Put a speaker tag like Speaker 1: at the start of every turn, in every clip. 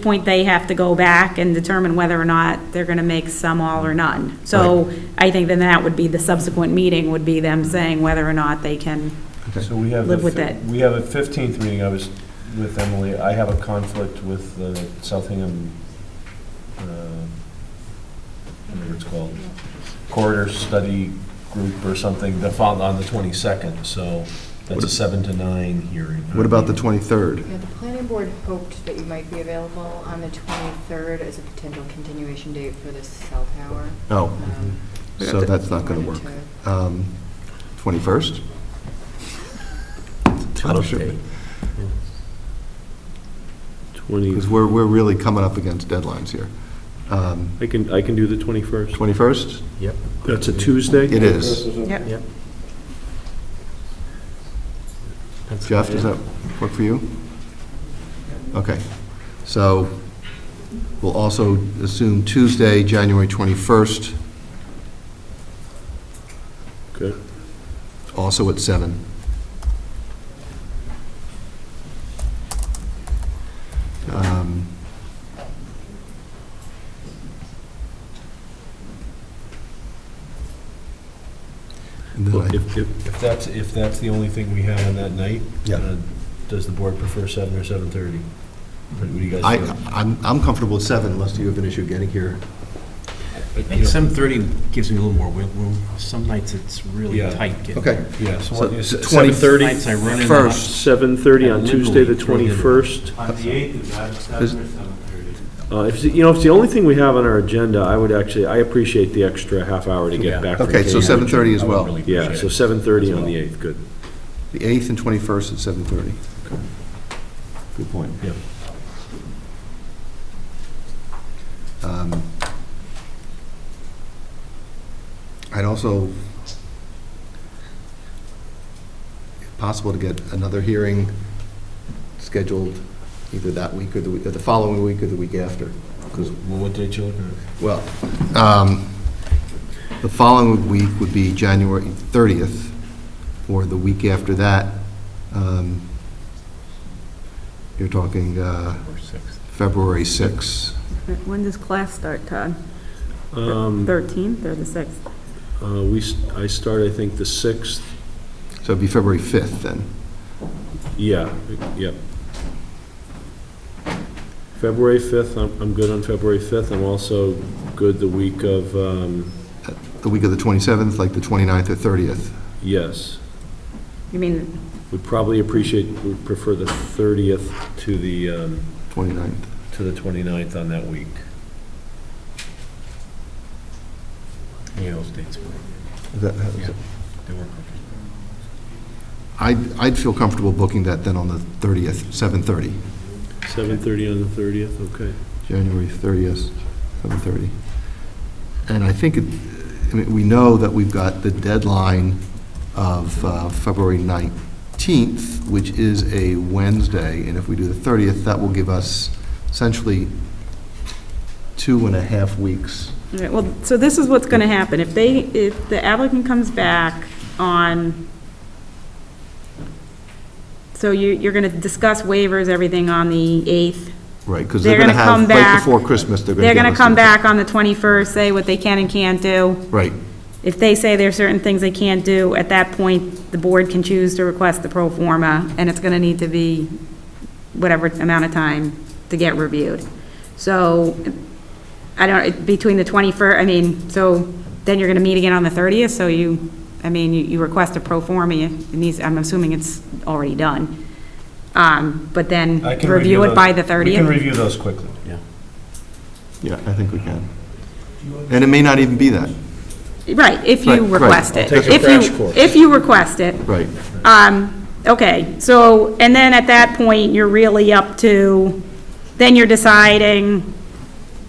Speaker 1: point, they have to go back and determine whether or not they're going to make some all or none. So I think then that would be the subsequent meeting, would be them saying whether or not they can,
Speaker 2: So we have. the
Speaker 1: Live with
Speaker 2: fif-
Speaker 1: it.
Speaker 2: We have a 15th meeting, I was with Emily, I have a conflict with the Southingham, uh, whatever it's called, corridor study group or something, the fol- on the 22nd, so that's a 7 to 9 hearing.
Speaker 3: What about the 23rd?
Speaker 4: Yeah, the planning board hoped that you might be available on the 23rd as a potential continuation date for the cell tower.
Speaker 3: Oh,
Speaker 4: Um,
Speaker 3: so that's not going to work. Um, 21st? Tuesday.
Speaker 5: Twenty,
Speaker 3: Because we're, we're really coming up against deadlines here. Um,
Speaker 5: I can, I can do the 21st.
Speaker 3: 21st?
Speaker 6: Yep.
Speaker 5: That's a Tuesday?
Speaker 3: It is.
Speaker 6: Yep. That's-
Speaker 3: Jeff, does that work for you? Okay. So we'll also assume Tuesday, January 21st,
Speaker 5: Okay.
Speaker 3: also at seven. Um, And then
Speaker 5: Well,
Speaker 3: I-
Speaker 5: if- if-
Speaker 2: If that's, if that's the only thing we have on that night,
Speaker 3: Yeah.
Speaker 2: uh, does the board prefer 7 or 7:30? What do you
Speaker 3: I,
Speaker 2: guys think?
Speaker 3: I'm, I'm comfortable at seven unless you have an issue getting here.
Speaker 2: But, you know,
Speaker 6: Seven thirty gives me a little more wiggle room. Some nights it's really
Speaker 2: Yeah.
Speaker 6: tight. getting
Speaker 3: Okay.
Speaker 6: there.
Speaker 2: Yeah, so
Speaker 3: So
Speaker 2: what is it,
Speaker 3: 20
Speaker 2: 7:30?
Speaker 6: Nights I run in.
Speaker 3: First.
Speaker 5: 7:30 on Tuesday, the
Speaker 2: Literally throw it in.
Speaker 5: 21st.
Speaker 7: On the 8th, is that 7 or 7:30?
Speaker 5: Uh, If, you know, if it's the only thing we have on our agenda, I would actually, I appreciate the extra half hour to get
Speaker 2: Yeah.
Speaker 5: back from
Speaker 3: Okay, so
Speaker 5: Cambridge.
Speaker 3: 7:30 as
Speaker 2: I would
Speaker 3: well.
Speaker 2: really
Speaker 5: Yeah,
Speaker 2: appreciate
Speaker 5: so
Speaker 2: it.
Speaker 5: 7:30 on
Speaker 2: As
Speaker 5: the
Speaker 2: well.
Speaker 5: 8th, good.
Speaker 3: The 8th and 21st at 7:30. Good point.
Speaker 2: Yep.
Speaker 3: Um, I'd also, if possible, to get another hearing scheduled either that week or the, week- or the following week or the week after, because,
Speaker 2: Well, What day, children?
Speaker 3: well, um, the following week would be January 30th, or the week after that. um, You're talking uh,
Speaker 6: Or six.
Speaker 3: February 6th.
Speaker 1: when does class start, Todd?
Speaker 5: Um,
Speaker 1: 13th or the 6th?
Speaker 5: uh, We, s- I start, I think, the 6th,
Speaker 3: So it'd be February 5th, then.
Speaker 5: yeah, yep. February 5th, I'm, I'm good on February 5th. I'm also good the week of, um,
Speaker 3: The week of the 27th, like the 29th or 30th.
Speaker 5: yes.
Speaker 1: You mean,
Speaker 5: We'd probably appreciate, we'd prefer the 30th to the, um,
Speaker 3: 29th.
Speaker 2: to the 29th on that week.
Speaker 6: Yeah, those dates work.
Speaker 3: Is that- is
Speaker 6: Yeah.
Speaker 3: it-
Speaker 6: They work.
Speaker 3: I'd, I'd feel comfortable booking that then on the 30th, 7:30.
Speaker 5: 7:30 on the 30th, okay.
Speaker 3: January 30th, 7:30. And I think, it- I mean, we know that we've got the deadline of uh, February 19th, which is a Wednesday, and if we do the 30th, that will give us essentially two and a half weeks.
Speaker 1: all right, well, so this is what's going to happen. If they, if the applicant comes back on, so you, you're going to discuss waivers, everything on the 8th,
Speaker 3: Right, because
Speaker 1: They're
Speaker 3: they're going to
Speaker 1: gonna come
Speaker 3: have, right
Speaker 1: back-
Speaker 3: before Christmas, they're going to
Speaker 1: They're going to come back on the 21st, say what they can and can't do.
Speaker 3: Right,
Speaker 1: If they say there are certain things they can't do, at that point, the board can choose to request the pro forma, and it's going to need to be whatever amount of time to get reviewed. So, I don't, between the 21st, I mean, so then you're going to meet again on the 30th, so you, I mean, you- you request a pro forma, it needs, I'm assuming it's already done. Um, But then,
Speaker 2: I can
Speaker 1: review it
Speaker 2: those-
Speaker 1: by the
Speaker 2: We can
Speaker 1: 30th.
Speaker 2: review those quickly.
Speaker 3: yeah, I think we can. And it may not even be that,
Speaker 1: Right, if
Speaker 3: Right,
Speaker 1: you
Speaker 3: right.
Speaker 1: request it.
Speaker 2: take a
Speaker 1: If you-
Speaker 2: crash course.
Speaker 1: If you request it.
Speaker 3: right.
Speaker 1: Um, okay, so, and then at that point, you're really up to, then you're deciding,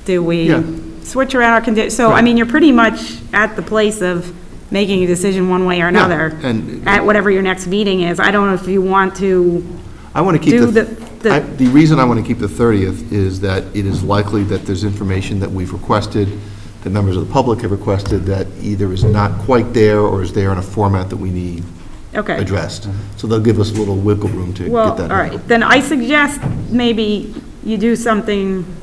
Speaker 1: do we
Speaker 3: Yeah.
Speaker 1: switch around our condi, so, I mean, you're pretty much at the place of making a decision one way or another.
Speaker 3: and-
Speaker 1: At whatever your next meeting is. I don't know if you want to,
Speaker 3: I want to keep
Speaker 1: Do the-
Speaker 3: the, I- the reason I want to keep the 30th is that it is likely that there's information that we've requested, that members of the public have requested, that either is not quite there or is there in a format that we need
Speaker 1: okay.
Speaker 3: addressed. So they'll give us a little wiggle room to get that.
Speaker 1: Well, all
Speaker 3: done.
Speaker 1: right, then I suggest maybe you do something